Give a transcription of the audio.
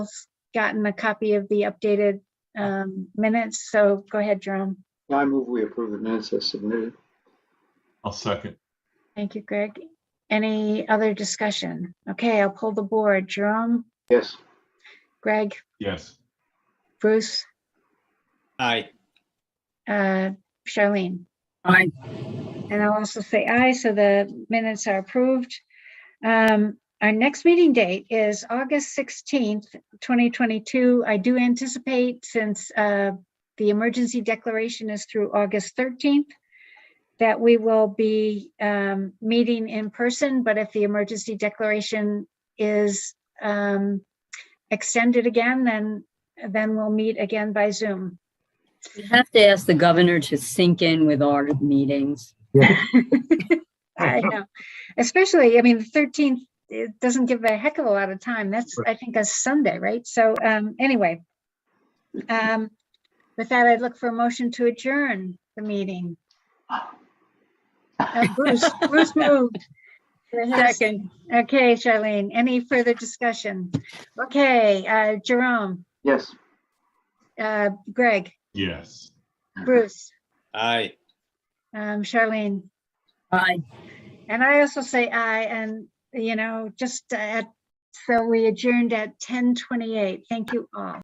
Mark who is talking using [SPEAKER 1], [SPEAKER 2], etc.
[SPEAKER 1] gotten a copy of the updated um, minutes, so go ahead, Jerome.
[SPEAKER 2] I move we approve the minutes as submitted.
[SPEAKER 3] I'll second.
[SPEAKER 1] Thank you, Greg. Any other discussion? Okay, I'll pull the board. Jerome,
[SPEAKER 2] Yes,
[SPEAKER 1] Greg,
[SPEAKER 3] Yes.
[SPEAKER 1] Bruce,
[SPEAKER 4] Aye.
[SPEAKER 1] uh, Charlene.
[SPEAKER 5] Aye.
[SPEAKER 1] And I'll also say aye, so the minutes are approved. Um, Our next meeting date is August 16th, 2022. I do anticipate, since uh, the emergency declaration is through August 13th, that we will be um, meeting in person, but if the emergency declaration is um, extended again, then, then we'll meet again by Zoom.
[SPEAKER 5] We have to ask the governor to sink in with our meetings.
[SPEAKER 1] I know, especially, I mean, the thirteenth, it doesn't give a heck of a lot of time. That's, I think, a Sunday, right? So, um, anyway. Um, with that, I'd look for a motion to adjourn the meeting. Uh, Bruce, Bruce moved.
[SPEAKER 5] Second.
[SPEAKER 1] Okay, Charlene, any further discussion? Okay, uh, Jerome,
[SPEAKER 2] yes.
[SPEAKER 1] uh, Greg,
[SPEAKER 3] Yes.
[SPEAKER 1] Bruce,
[SPEAKER 4] Aye.
[SPEAKER 1] um, Charlene.
[SPEAKER 5] Aye.
[SPEAKER 1] And I also say aye, and, you know, just at, so we adjourned at ten twenty-eight. Thank you all.